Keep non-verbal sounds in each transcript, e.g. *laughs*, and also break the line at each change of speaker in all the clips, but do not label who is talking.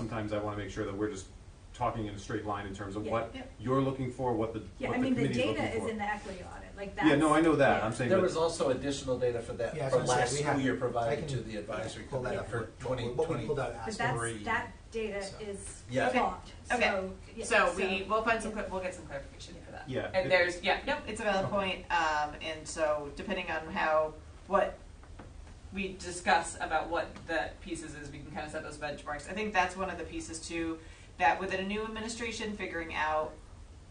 sometimes I wanna make sure that we're just talking in a straight line in terms of
Yeah.
what
Yeah.
you're looking for, what the,
Yeah,
what
I
the
mean, the
committee's looking for.
data is in the equity audit, like that's.
Yeah, no, I know that,
yeah.
I'm saying,
There was
but,
also additional data for that,
Yeah, I was
from
gonna say,
last
we have-
school year
I
provided
can-
to the advisory
Pull that
committee
up
for
what we-
twenty
What we
twenty.
pulled out
But
last
that's,
Three.
that data
So-
is
Yeah. Okay.
logged,
Okay.
so, yeah,
So we, we'll find some, cl- we'll get some clarification for that.
yeah. it-
And there's, yeah, nope, it's a valid
Okay.
point, um, and so depending on how, what we discuss about what the pieces is, we can kind of set those benchmarks. I think that's one of the pieces too, that within a new administration, figuring out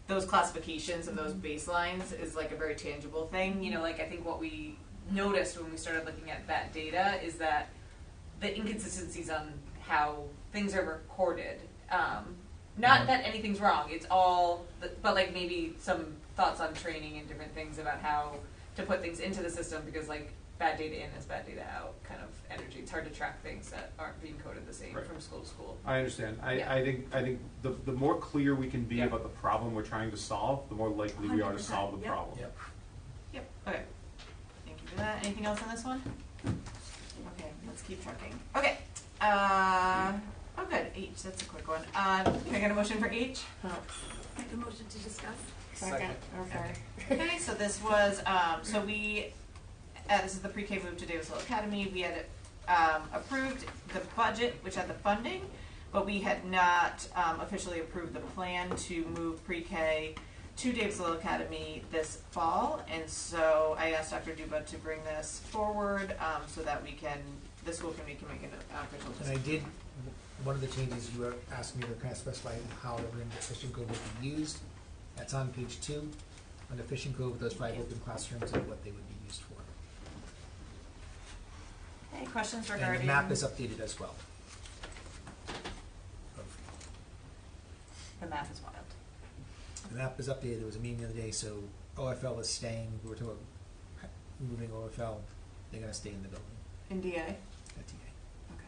those classifications and those baselines is like a very tangible thing, you know, like I think what we noticed when we started looking at that data is that the inconsistencies on how things are recorded. Um, not that anything's wrong. It's all, but like maybe some thoughts on training and different things about how to put things into the system because like bad data in is bad data out kind of energy. It's hard to track things that aren't being coded the same
Right.
from school to school.
I understand,
Yeah.
I, I think, I think the, the more clear we can be
Yeah.
about the problem we're trying to solve, the more likely we are to
100%,
solve the
yeah.
problem.
Yep.
Yep. Okay. Thank you for that. Anything else on this one? Okay, let's keep trucking. Okay. Uh, oh, good. H. That's a quick one. Uh, can I get a motion for H?
Make a motion to discuss.
Second.
Okay. Okay, so this was, um, so we, uh, this is the pre-K move to Davis Hill Academy. We had, um, approved the budget, which had the funding, but we had not, um, officially approved the plan to move pre-K to Davis Hill Academy this fall. And so I asked Dr. Duba to bring this forward, um, so that we can, the school committee can make an uh, official
And I
decision.
did, one of the changes you were asking me to kind of specify how the room at Fishing Cove would be used. That's on page two, under Fishing Cove, those five open classrooms and what they would be used for.
Any questions regarding?
And the map is updated as well. Of-
The map is wild.
The map is updated, there was a meeting the other day, so OFL is staying, we were talking about moving OFL, they're gonna stay in the building E
In DA?
at TA.
Okay.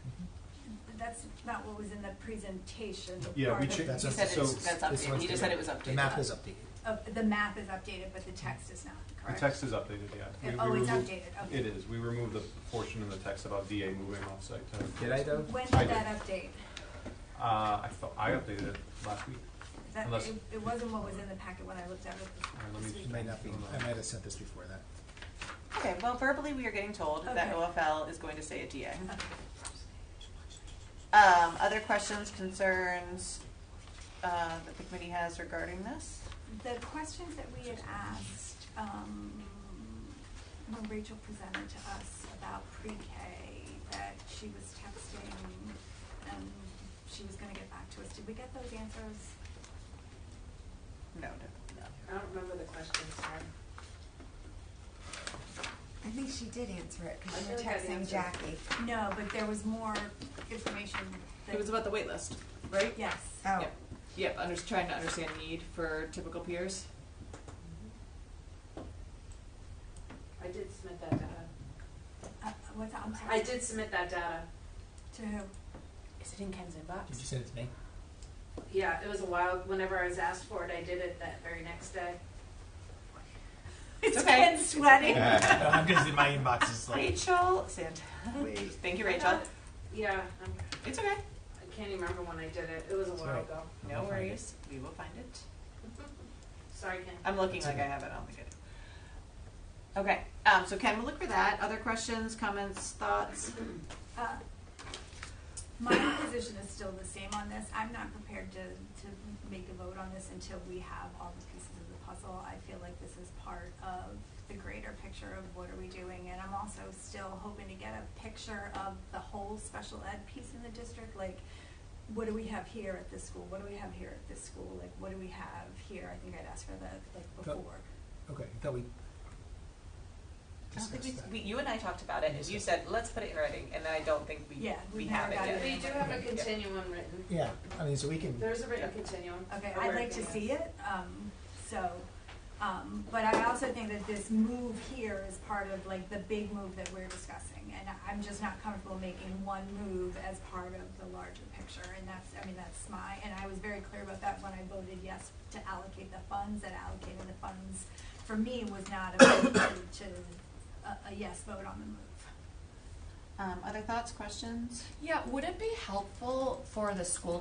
But That's not what was in the presentation.
Yeah, we
part
cha-
That's
You
up-
said
so-
it's, that's
this
updated,
one's
you just said it was updated.
The map is updated.
Of, the map is updated, but the text is not,
The
correct?
text is updated, yeah. We- we
Oh, it's
removed-
updated, okay.
It is, we removed the portion in the text about DA moving offsite. to-
Did I though?
When
I
did
did.
that update?
Uh, I thought, I updated it last week.
Is That,
Unless-
it, it wasn't what was in the packet when I looked at it
All right, let
this
me
It
week.
might not be, I might have sent this before that.
Okay, well, verbally, we are getting told that
Okay.
OFL is going to say a DA.
Okay.
Um, other questions, concerns, uh, that the committee has regarding this?
The questions that we had asked, um, when Rachel presented to us about pre-K, that she was texting and she was gonna get back to us, did we get those answers?
No, no, no.
I don't remember the question, sorry.
I think she did answer it because
I
you were
feel like I
texting
answered.
Jackie.
No, but there was more information that.
It was about the wait list, right?
Yes.
Oh,
Yep. Yep, under, trying to understand need for
*laughs*
typical peers.
I did submit that data.
Uh, what's, that? I'm sorry.
I did submit that data.
To who?
Is it in Ken's
Did you
inbox?
send it to me?
Yeah, it was a while, whenever I was asked for it, I did it that very next day.
It's
okay.
Ken *laughs* sweating.
No, I'm just in my inbox is like.
Rachel, Sand.
Wait.
*laughs* Thank you, Rachel.
Yeah, I'm,
It's okay.
I can't even remember when I did it, it was a
It's
while
right.
ago.
No worries. We will find it.
Sorry, Ken.
I'm looking
It's
like I
okay.
have it. I don't think I do. Okay, um, so Ken, we'll look for that. Other questions, comments, thoughts?
Uh, My position is still the same on this. I'm not prepared to, to make a vote on this until we have all the pieces of the puzzle. I feel like this is part of the greater picture of what are we doing? And I'm also still hoping to get a picture of the whole special ed piece in the district, like what do we have here at this school? What do we have here at this school? Like, what do we have here? I think I'd asked for that, like,
But-
before.
Okay, I thought we
I don't think
discussed that.
we, we, you and I talked about it, and you
Yes.
said, let's put it in writing, and I don't think we,
Yeah,
we
we
have it
never got
yet.
it.
We do have a continuum written.
Yeah, I mean, so we can,
There's a written
Yeah.
continuum.
Um, Okay,
Or
I'd
where
like to
is.
see it, um, so, um, but I also think that this move here is part of like the big move that we're discussing. And I- I'm just not comfortable making one move as part of the larger picture, and that's, I mean, that's my, and I was very clear about that when I voted yes to allocate the funds, that allocating the funds for me was not a vote to, a, a yes vote on the move.
Um, other thoughts, questions? Yeah, would it be helpful for the school